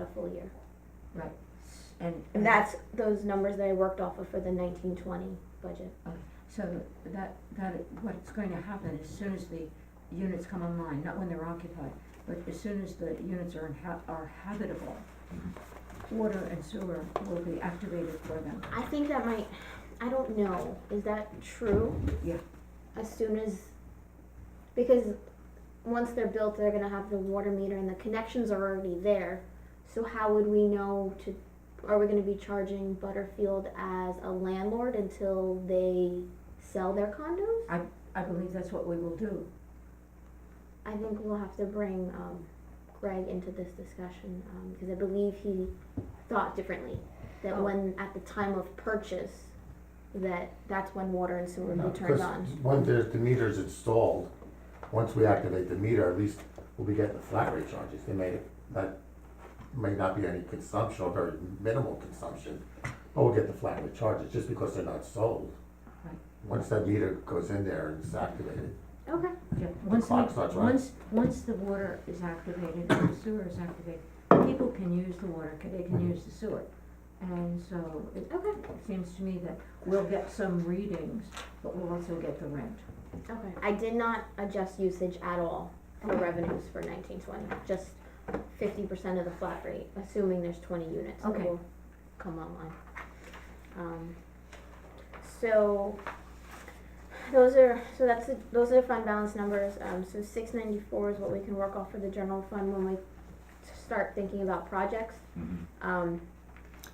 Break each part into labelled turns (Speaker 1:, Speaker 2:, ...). Speaker 1: a full year.
Speaker 2: right, and.
Speaker 1: And that's those numbers that I worked off of for the nineteen twenty budget.
Speaker 2: So that, that, what's going to happen as soon as the units come online, not when they're occupied, but as soon as the units are inha- are habitable, water and sewer will be activated for them.
Speaker 1: I think that might, I don't know, is that true?
Speaker 2: Yeah.
Speaker 1: As soon as, because once they're built, they're gonna have the water meter and the connections are already there. So how would we know to, are we gonna be charging Butterfield as a landlord until they sell their condos?
Speaker 2: I believe that's what we will do.
Speaker 1: I think we'll have to bring, um, Greg into this discussion, um, because I believe he thought differently. That
Speaker 2: Oh.
Speaker 1: when, at the time of purchase, that that's when water and sewer
Speaker 3: No,
Speaker 1: would be turned
Speaker 3: 'cause
Speaker 1: on.
Speaker 3: When there's, the meter's installed, once we activate the meter, at least we'll be getting the flat rate charges. They may, that may not be any consumption or very minimal consumption, but we'll get the flat rate charges just because they're not sold.
Speaker 2: Right.
Speaker 3: Once that meter goes in there and it's activated,
Speaker 1: Okay,
Speaker 2: Yeah, once, we-
Speaker 3: clock starts running.
Speaker 2: once, once the water is activated and the sewer is activated, people can use the water, ca- they can
Speaker 3: Mhm.
Speaker 2: use the sewer. And so it
Speaker 1: okay,
Speaker 2: seems to me that we'll get some readings, but we'll also get the rent.
Speaker 1: okay. I did not adjust usage at all for revenues for nineteen twenty, just fifty percent of the flat rate, assuming there's twenty units that
Speaker 2: Okay.
Speaker 1: will come online. Um, so, those are, so that's, the- those are the fund balance numbers, um, so six ninety-four is what we can work off for the general fund when we start thinking about projects.
Speaker 4: Mhm.
Speaker 1: Um,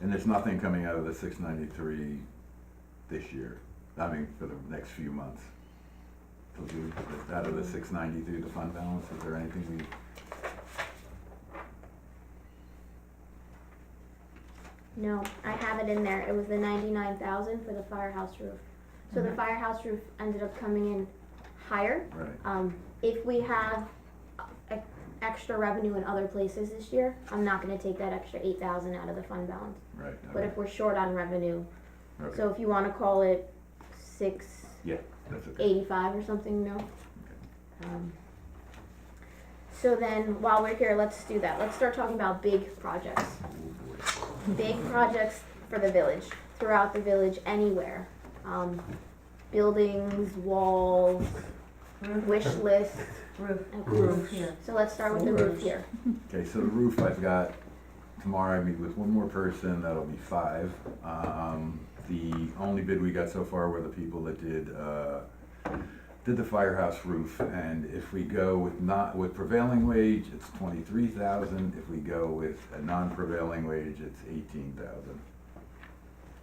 Speaker 4: And there's nothing coming out of the six ninety-three this year, I mean, for the next few months. So do, out of the six ninety-three, the fund balance, is there anything
Speaker 1: no, I have it in there, it was the ninety-nine thousand for the firehouse roof. So the
Speaker 4: Mm-hmm.
Speaker 2: Mhm.
Speaker 1: firehouse roof ended up coming in higher,
Speaker 4: we, right?
Speaker 1: um, if we have e- extra revenue in other places this year, I'm not gonna take that extra eight thousand out of the fund balance.
Speaker 4: Right.
Speaker 1: But
Speaker 4: okay,
Speaker 1: if we're short on revenue,
Speaker 4: okay,
Speaker 1: So if you wanna call it six
Speaker 4: That's okay.
Speaker 1: eighty-five or something, no? Um, So then, while we're here, let's do that, let's start talking about big projects,
Speaker 4: Oh, boy.
Speaker 1: big projects for the village, throughout the village, anywhere. Um, buildings, walls,
Speaker 2: Roof,
Speaker 1: wish lists,
Speaker 2: roof,
Speaker 1: okay,
Speaker 2: roof here.
Speaker 1: so let's start with the roof here.
Speaker 4: Okay, so the roof, I've got, tomorrow I meet with one more person, that'll be five. Um, the only bid we got so far were the people that did, uh, did the firehouse roof, and if we go with not, with prevailing wage, it's twenty-three thousand, if we go with a non-prevailing wage, it's eighteen thousand.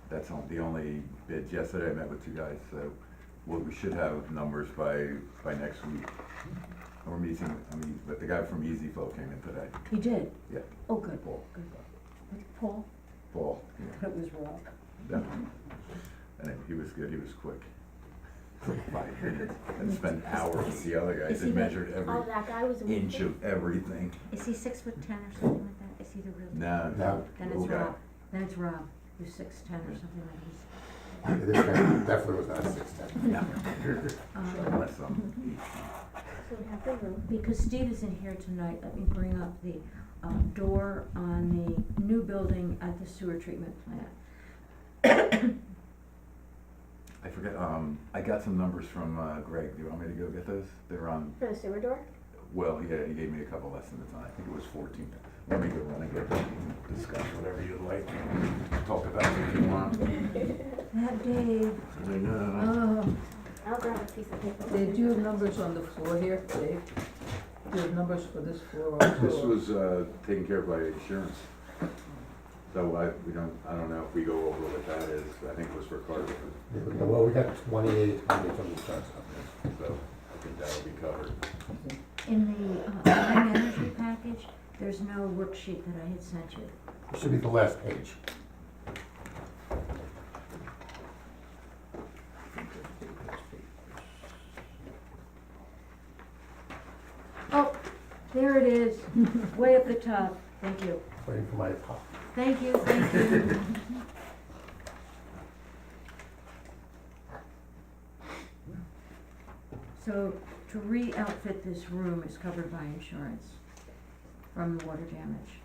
Speaker 4: That's on, the only bids, yesterday I met with two guys, so, well, we should have numbers by, by next week. We're meeting, I mean, but the guy from Easy Flow came in today.
Speaker 2: He did?
Speaker 4: Yeah.
Speaker 2: Oh, good,
Speaker 4: Paul.
Speaker 2: good. Was it Paul?
Speaker 4: Paul, yeah,
Speaker 2: It was Rob.
Speaker 4: definitely. And he was good, he was quick. Five minutes, and spent hours with the other guys
Speaker 2: Is he
Speaker 4: and
Speaker 2: the-
Speaker 4: measured
Speaker 1: Oh,
Speaker 4: every
Speaker 1: that guy was.
Speaker 4: inch of everything.
Speaker 2: Is he six foot ten or something like that? Is he the real?
Speaker 4: No,
Speaker 3: No.
Speaker 2: Then it's
Speaker 4: little guy.
Speaker 2: Rob, then it's Rob, who's six ten or something like that.
Speaker 3: this guy definitely was not six ten.
Speaker 4: No.
Speaker 2: Um,
Speaker 4: Unless I'm,
Speaker 1: So we have the roof.
Speaker 2: Because Steve isn't here tonight, let me bring up the, uh, door on the new building at the sewer treatment plant.
Speaker 4: I forget, um, I got some numbers from uh, Greg, do you want me to go get those? They're on,
Speaker 1: For the sewer door?
Speaker 4: well, yeah, he gave me a couple estimates on, it. I think it was fourteen. Let me go run and get them, and discuss whatever you'd like, talk about it if you want.
Speaker 2: That day, oh,
Speaker 4: I know.
Speaker 5: Uh,
Speaker 1: I'll grab a piece of paper.
Speaker 5: Dave, do you have numbers on the floor here, Dave? Do you have numbers for this floor also?
Speaker 4: This was uh, taken care of by insurance. So I, we don't, I don't know if we go over what that is, I think it was for Carter,
Speaker 3: Well, we got twenty-eight hundred from the insurance company.
Speaker 4: so I think that'll be covered.
Speaker 2: in the, uh, clean energy package, there's no worksheet that I had sent you.
Speaker 3: It should be the last page.
Speaker 2: Oh, there it is, way up the top, thank you.
Speaker 3: Waiting for my pop.
Speaker 2: Thank you, thank you. So to re-outfit this room is covered by insurance from the water damage.